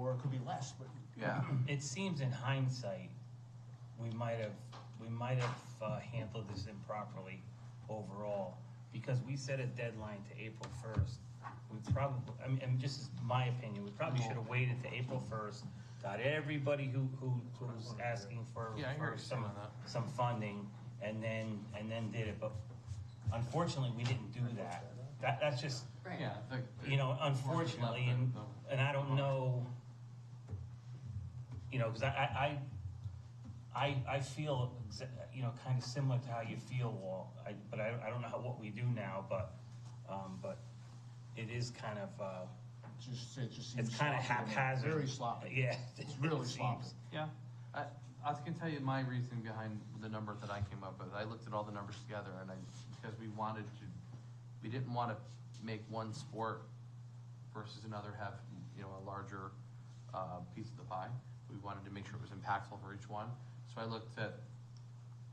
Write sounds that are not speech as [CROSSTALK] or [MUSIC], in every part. it could be less, but yeah. Hmm. It seems in hindsight, we might have, we might have uh, handled this improperly overall, because we set a deadline to April first. We probably, I mean, and just is my opinion, we probably should have waited to April first, got everybody who, who was asking for, Yeah, I hear for you some, saying that. some funding, and then, and then did it, but unfortunately, we didn't do that. That, that's just, Right. Yeah, I think you know, unfortunately, and, and I don't know, you know, because I, I, I, I feel, exa- you know, kind of similar to how you feel, Walt, I, but I, I don't know how, what we do now, but, um, but it is kind of, uh, it just, it just seems. it's kind of sloppy. haphazard. Very sloppy. [LAUGHS] Yeah. It's really It seems. sloppy. Yeah, I, I was gonna tell you my reason behind the number that I came up with. I looked at all the numbers together and I, because we wanted to, we didn't wanna make one sport versus another have, you know, a larger, uh, piece of the pie. We wanted to make sure it was impactful for each one. So I looked at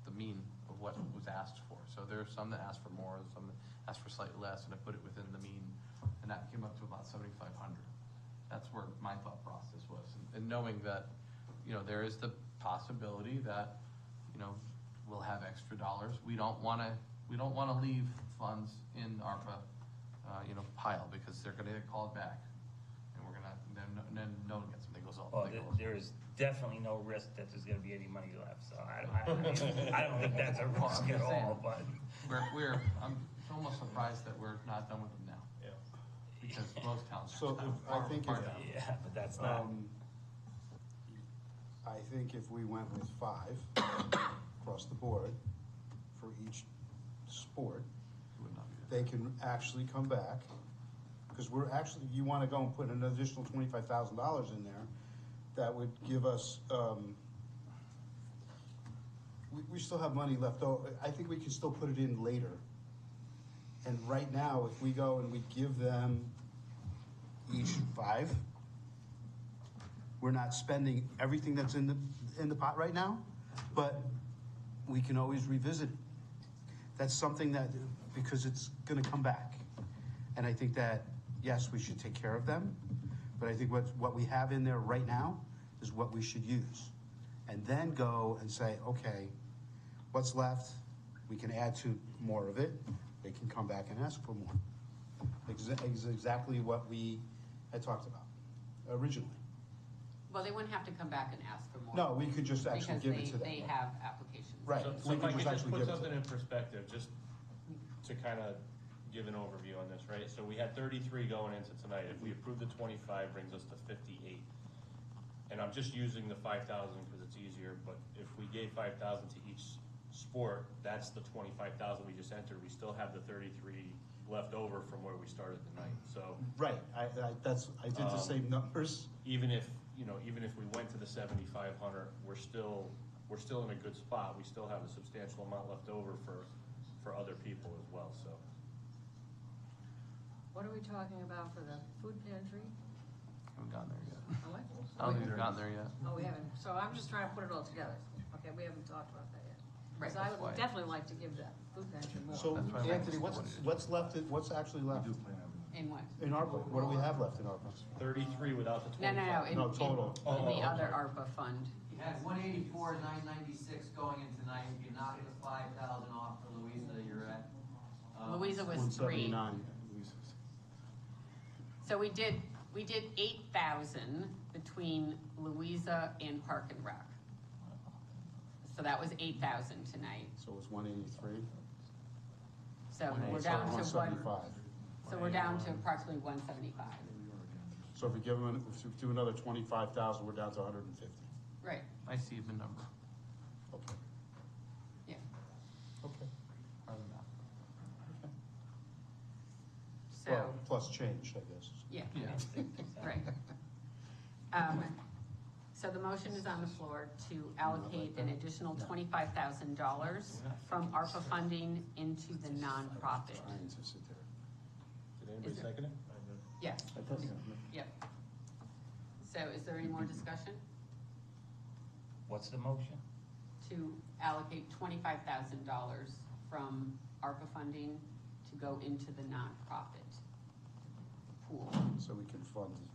the mean of what was asked for. So there are some that asked for more, some that asked for slightly less, and I put it within the mean, and that came up to about seventy-five hundred. That's where my thought process was, and- and knowing that, you know, there is the possibility that, you know, we'll have extra dollars. We don't wanna, we don't wanna leave funds in ARPA, uh, you know, pile, because they're gonna get called back. And we're gonna, then, then no one gets them, they goes all, Well, they oh, there, goes. there is definitely no risk that there's gonna be any money left, so I, I, I don't think [LAUGHS] that's a Well, I'm risk at just all, saying. but. We're, we're, I'm almost surprised that we're not done with them now. Yeah. Because most towns. are So if- I think far if- down. Yeah, but that's not, Um, I think if we went with five [COUGHS] across the board for each sport, It would not be good. they can actually come back. Because we're actually, you want to go and put an additional twenty-five thousand dollars in there, that would give us, um, we, we still have money left over. I think we can still put it in later. And right now, if we go and we give them each five, we're not spending everything that's in the, in the pot right now, but we can always revisit it that's something that, because it's gonna come back. And I think that, yes, we should take care of them, but I think what, what we have in there right now is what we should use. And then go and say, okay, what's left? We can add to more of it, they can come back and ask for more. Exa- ex- Exactly what we had talked about originally. Well, they wouldn't have to come back and ask for more. No, we could just actually Because give it they, to them. they have applications. Right. So- we So if can I could just just actually put give it to something in perspective, just to kind of give an overview on this, right? So we had thirty-three going into tonight. If we approve the twenty-five, brings us to fifty-eight. And I'm just using the five thousand because it's easier, but if we gave five thousand to each sport, that's the twenty-five thousand we just entered. We still have the thirty-three left over from where we started the night, so. Right, I, I, that's, I did the Um, same numbers. even if, you know, even if we went to the seventy-five hundred, we're still, we're still in a good spot. We still have a substantial amount left over for, for other people as well, so. What are we talking about for the food pantry? Haven't gotten there yet. Oh, what? I don't think we've gotten there yet. Oh, we haven't, so I'm just trying to put it all together. Okay, we haven't talked about that yet. Right, Because I that's why. would definitely like to give that food pantry more. So That's why we Anthony, just what's, wanted to- what's left, what's actually left? In what? In ARPA, what do we have left in ARPA? Thirty-three without the No, twenty-five. no, no. in- No, in- total. Oh, In oh, the other okay. ARPA fund. You had one eighty-four, nine ninety-six going in tonight, you knocked the five thousand off for Louisa, you're at. uh, Louisa was three. 179. So we did, we did eight thousand between Louisa and Park and Rec. So that was eight thousand tonight. So it's one eighty-three? So we're down to One one, seventy-five. so we're down to approximately one seventy-five. So if we give them, if we do another twenty-five thousand, we're down to hundred and fifty. Right, I see the number. Okay. yeah. Okay. Or the map. So, Well, plus change, I guess. yeah. Yeah. Right. Um, So the motion is on the floor to allocate an additional twenty-five thousand dollars from ARPA funding into the nonprofit. Trying to sit there. Did anybody Is it- second it? Yes, yep. So is there any more discussion? what's the motion? To allocate twenty-five thousand dollars from ARPA funding to go into the nonprofit pool. So we can fund